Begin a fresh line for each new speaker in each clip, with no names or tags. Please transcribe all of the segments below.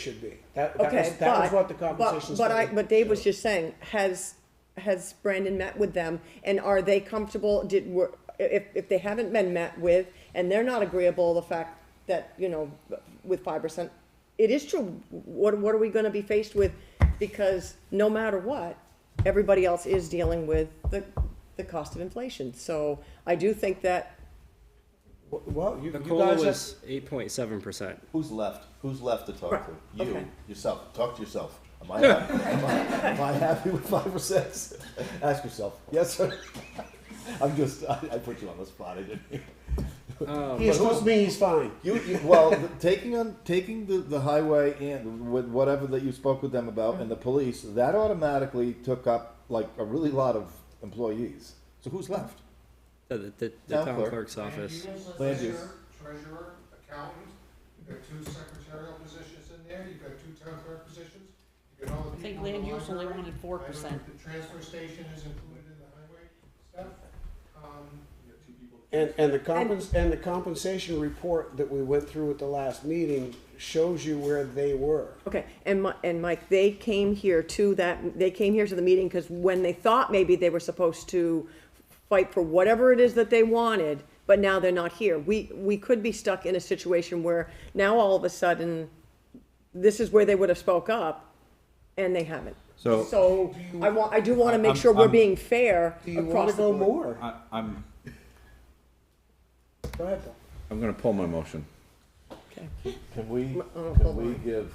should be. That, that was,
Okay,
that was
but-
what the
but-
compensation.
But I,
study
but Dave was
showed.
just saying, has, has Brandon met with them? And are they comfortable, did, were, if, if they haven't been met with, and they're not agreeable, the fact that, you know, with five percent, it is true, what, what are we gonna be faced with? Because no matter what, everybody else is dealing with the, the cost of inflation. So I do think that,
Well, you,
The
you
cola
guys
was
have,
eight point seven percent.
Who's left? Who's left to talk
Right,
to? You,
okay.
yourself. Talk to yourself. Am I, happy? am, I, am I happy with five or six? Ask yourself. Yes, sir. I'm just, I, I put you on the spot. I didn't.
uh,
he excused me, he's fine.
You, you well, the- taking on taking the, the highway and with whatever that you spoke with them about and the police, that automatically took up like a really lot of employees. So who's left?
The, the, the, the
Town
town
clerk.
clerk's office.
Land use.
Treasurer, treasurer, accountant, you've got two secretarial positions in there, you've got two town clerk positions, you've got all the
I think
people in
land
the
use only
library.
wanted four
I know
percent.
The transfer station is included in the highway stuff, um, you got two people.
And, and the compens, and the compensation report that we went through at the last meeting shows you where they were.
okay, and Mi- and Mike, they came here to that, they came here to the meeting, cause when they thought maybe they were supposed to fight for whatever it is that they wanted, but now they're not here. We, we could be stuck in a situation where now all of a sudden, this is where they would have spoke up, and they haven't.
So-
So, I want, I do wanna make
I'm-
sure we're
I'm-
being fair
Do you want
across
to
the
go
board.
more?
I, I'm,
Go ahead, Paul.
I'm gonna pull my motion.
Can we,
oh,
can
hold
we
on.
give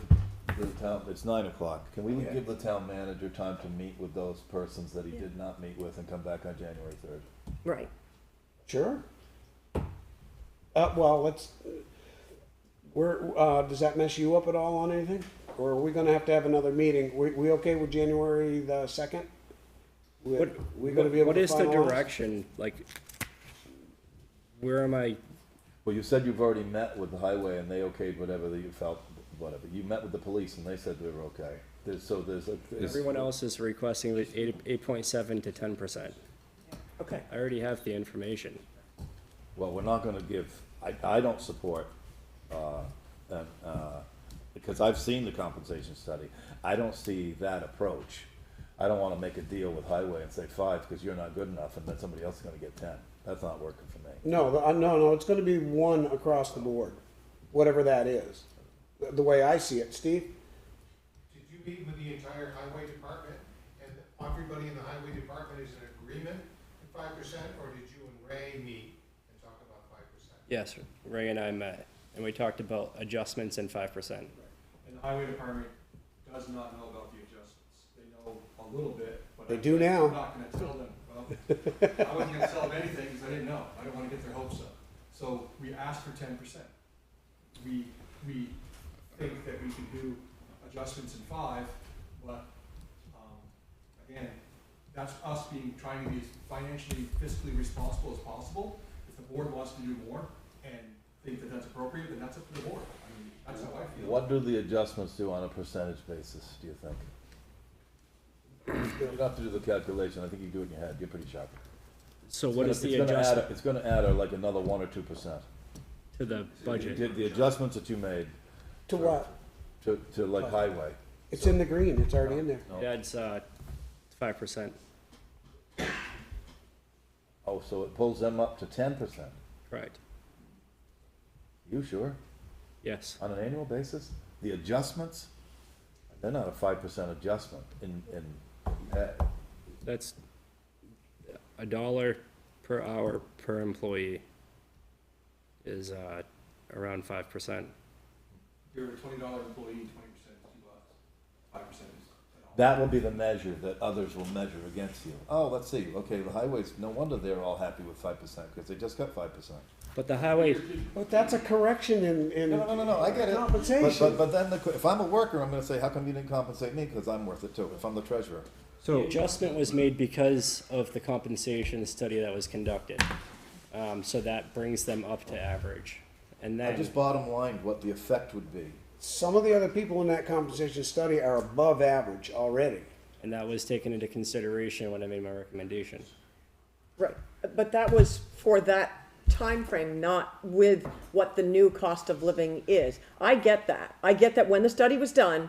the town, it's nine o'clock, can we give the town manager time to meet with those persons that he did not meet with and come back on January third?
Right.
Sure. Uh, well, let's, we're, uh, does that mess you up at all on anything? Or are we gonna have to have another meeting? We, we okay with January the second? We,
What,
we gonna be able
what
to
is the
finalize?
direction? Like, where am I?
Well, you said you've already met with the highway and they okayed whatever that you felt, whatever, you met with the police and they said they were okay, there's, so there's a.
Everyone else is requesting the eight, eight point seven to ten percent.
Okay.
I already have the information.
Well, we're not gonna give, I, I don't support, uh, an, uh, because I've seen the compensation study, I don't see that approach. I don't wanna make a deal with highway and say five, because you're not good enough, and then somebody else is gonna get ten, that's not working for me.
No, the- uh, no, no, it's gonna be one across the board, whatever that is, the- the way I see it. Steve?
Did you meet with the entire highway department, and everybody in the highway department is in agreement at five percent, or did you and Ray meet and talk about five percent?
Yes, Ray and I met, and we talked about adjustments and five percent.
And the highway department does not know about the adjustments. They know a little bit, but.
They
I-
do now.
I'm not gonna tell them. Well, I wasn't gonna tell them anything because I didn't know. I didn't wanna get their hopes up. So we asked for ten percent. We, we think that we can do adjustments in five, but, um, again, that's us being, trying to be as financially fiscally responsible as possible. If the board wants to do more and think that that's appropriate, then that's up to the board. I mean, that's how I feel.
What do the adjustments do on a percentage basis, do you think? You don't have to do the calculation, I think you do it in your head, you're pretty sharp.
So what is
It's
the
gonna add-
adjustment
It's gonna add uh, like another one or two percent.
to the budget?
Did the adjustments that you made
To what?
to, to like highway,
It's in the green, it's already in there.
That's, uh, five percent,
oh, so it pulls them up to ten percent?
correct?
You sure?
Yes,
On an annual basis? The adjustments? They're not a five percent adjustment in, in, uh,
that's a dollar per hour per employee is, uh, around five percent.
You're a twenty dollar employee, twenty percent is two bucks, five percent is ten dollars.
that will be the measure that others will measure against you. Oh, let's see, okay, the highways, no wonder they're all happy with five percent, because they just got five percent.
But the highway,
But that's a correction in, in.
No, no, no, no, I get it. But,
Compensation.
but, but then the, qu- if I'm a worker, I'm gonna say, how come you didn't compensate me? Because I'm worth it too, if I'm the treasurer.
the adjustment was made because of the compensation study that was conducted. Um, so that brings them up to average. And
I
then,
just bottom lined what the effect would be.
Some of the other people in that compensation study are above average already.
and that was taken into consideration when I made my recommendation.
Right, but that was for that time frame, not with what the new cost of living is. I get that. I get that when the study was done,